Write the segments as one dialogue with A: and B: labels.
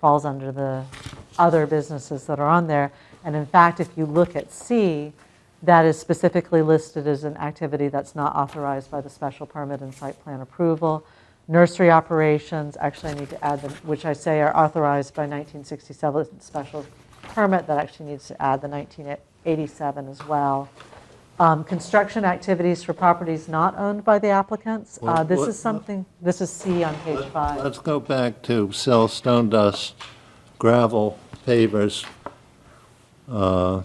A: falls under the other businesses that are on there. And in fact, if you look at C, that is specifically listed as an activity that's not authorized by the special permit and site plan approval. Nursery operations, actually I need to add them, which I say are authorized by 1967 special permit, that actually needs to add the 1987 as well. Um, Construction activities for properties not owned by the applicants, Uh,
B: Well,
A: this
B: what-
A: is something, this is C on page five.
B: Let's go back to sell stone dust, gravel, pavers. Uh,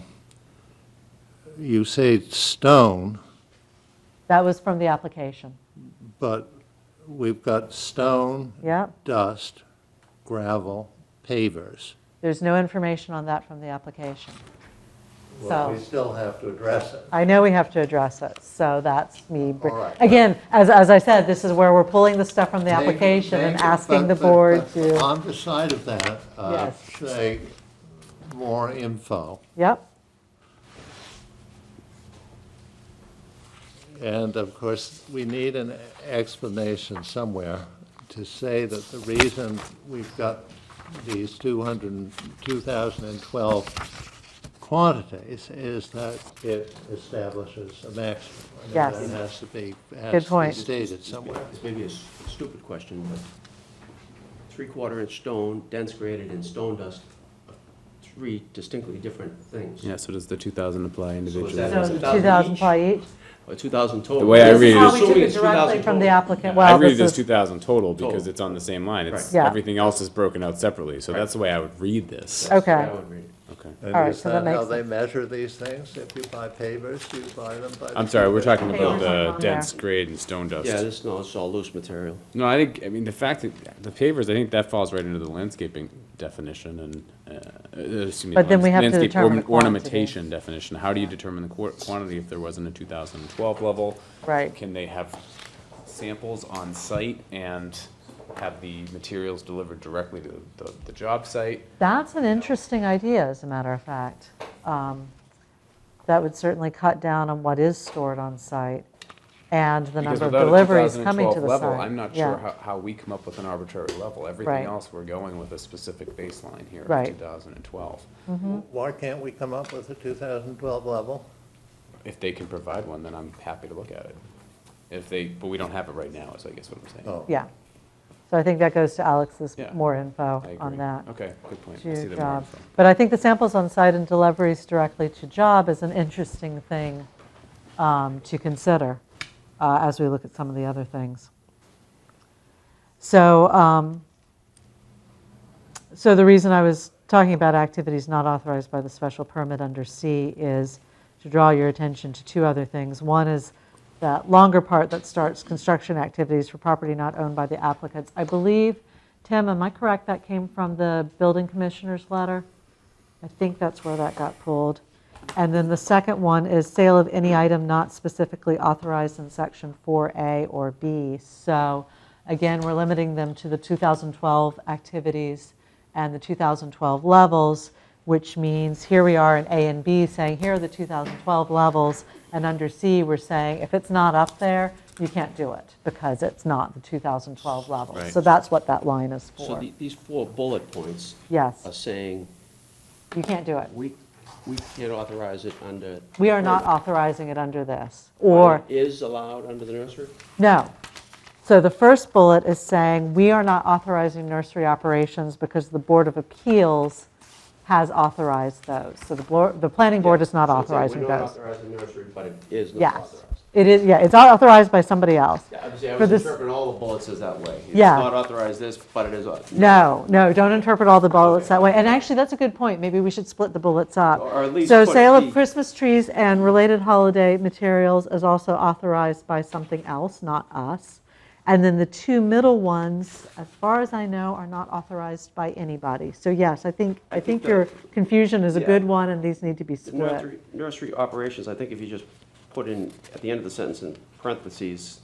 B: You say stone,
A: That was from the application.
B: but we've got stone,
A: Yep.
B: dust, gravel, pavers.
A: There's no information on that from the application.
B: Well, we
A: So-
B: still have to address it.
A: I know we have to address it, so that's me. br-
B: All right.
A: Again, as, as I said, this is where we're pulling the stuff from the
B: Maybe-
A: application and
B: maybe,
A: asking
B: but-
A: the
B: but-
A: board
B: but
A: to,
B: On the side of that, uh,
A: Yes.
B: say, more info.
A: yep,
B: And of course, we need an explanation somewhere to say that the reason we've got these 200, and 2012 quantities is that it establishes a maximum. And
A: Yes.
B: That has to be,
A: Good
B: has to be
A: point.
B: stated somewhere.
C: This may be a s- stupid question, but three-quarter inch stone, dense graded, and stone dust, are three distinctly different things.
D: Yeah, so does the 2,000 apply individually?
C: that-
A: so
C: was 2,000
A: 2,000
C: each?
A: ply each.
C: Or two thousand total.
D: The way I
A: This is
D: read it
A: how
D: is-
A: we took
C: Assuming
A: it
C: it's 2,000
A: directly from the
C: total.
A: applicant,
D: I
A: well,
D: read it as
A: this is,
D: 2,000 total because
C: Total.
D: it's on the same line. It's,
C: Right.
A: Yeah.
D: everything else is broken out separately, so that's the way I would read this.
C: That's the way
A: Okay.
C: I would read it.
D: Okay.
B: And
A: All right,
B: is
A: so that
B: that how
A: makes
B: they measure these things? If you buy pavers, do you buy them by? the
D: I'm sorry, we're
B: cubic?
D: talking
A: Hey,
D: about
A: there's something
D: the
A: on
D: dense
A: there.
D: grade and stone dust.
C: Yeah, this, no, it's all loose material.
D: No, I think, I mean, the fact that, the pavers, I think that falls right into the landscaping definition and, uh, uh, excuse me.
A: But then we have to
D: landscape
A: determine
D: orn-
A: the quantity.
D: Ornamentation definition, how do you determine the qu- quantity if there wasn't a two thousand and twelve level?
A: Right.
D: Can they have samples on site and have the materials delivered directly to the, the job site?
A: that's an interesting idea, as a matter of fact. Um, That would certainly cut down on what is stored on site and the
D: Because
A: number of
D: without a
A: deliveries coming to
D: 2012
A: the site.
D: level, I'm not
A: Yeah.
D: sure how, how we come up with an arbitrary level, everything
A: Right.
D: else, we're going with a specific baseline here of
A: Right.
D: two thousand and twelve.
A: Mm-hmm.
B: Why can't we come up with a 2012 level?
D: If they can provide one, then I'm happy to look at it. If they, but we don't have it right now, is I guess what I'm saying.
B: Oh.
A: Yeah. So I think that goes to Alex's
D: Yeah.
A: more info
D: I agree.
A: on that.
D: Okay, good point. I see
A: to
D: the
A: job.
D: mark.
A: But I think the samples on site and deliveries directly to job is an interesting thing um, to consider uh, as we look at some of the other things. So, um, so the reason I was talking about activities not authorized by the special permit under C is to draw your attention to two other things. One is that longer part that starts construction activities for property not owned by the applicants. I believe, Tim, am I correct, that came from the building commissioner's letter? I think that's where that got pulled. And then the second one is sale of any item not specifically authorized in section 4A or B. So again, we're limiting them to the 2012 activities and the 2012 levels, which means here we are in A and B saying, here are the 2012 levels. And under C, we're saying, if it's not up there, you can't do it because it's not the 2012 level.
D: Right.
A: So that's what that line is
C: So
A: for.
C: the- these four bullet points
A: Yes,
C: are saying,
A: you can't do it.
C: we, we can't authorize it under.
A: We are not
C: permit,
A: authorizing it under this,
C: but
A: or,
C: it Is allowed under the nursery?
A: no. So the first bullet is saying, we are not authorizing nursery operations because the Board of Appeals has authorized those. So the, board- the planning board is not
C: So it's like,
A: authorizing
C: We're not
A: those.
C: authorizing nursery, but it is not
A: Yes.
C: authorized.
A: It is, yeah, it's not authorized by somebody else.
C: Yeah, obviously, I
A: For
C: was
A: this-
C: interpreting all the bullets as that way. It's
A: Yeah.
C: not authorized this, but it is. au-
A: No, no, don't interpret all the bullets that way. And actually, that's a good point. Maybe we should split the bullets up.
C: Or at least
A: So
C: put
A: sale of
C: the-
A: Christmas trees and related holiday materials is also authorized by something else, not us. And then the two middle ones, as far as I know, are not authorized by anybody. So yes, I think, I think
C: think
A: your confusion is a
C: yeah.
A: good one and these need to be split.
C: Nursery- Nursery operations, I think if you just put in, at the end of the sentence in parentheses,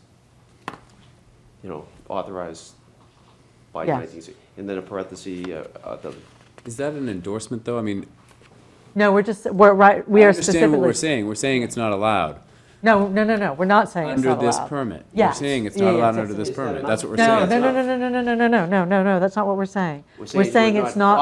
C: you know, authorized by
A: Yes.
C: 1960, and then a parenthesis, uh, uh, the,
D: Is that an endorsement, though? I mean,
A: No, we're just, we're right, we
D: I
A: are
D: understand what we're
A: specifically,
D: saying. We're saying it's not allowed.
A: No, no, no, no, we're not saying it's
D: under
A: not allowed.
D: this permit. You're
A: Yes.
D: saying it's
A: Yeah,
D: not
A: yeah,
D: allowed
A: yes,
D: under
A: yes,
D: this
C: yes.
D: permit. That's what we're
A: No,
D: saying.
A: no, no, no, no, no, no, no, no, no, no, that's not what we're saying.
C: We're
A: We're
C: saying
A: saying
C: we're
A: it's
C: not
A: not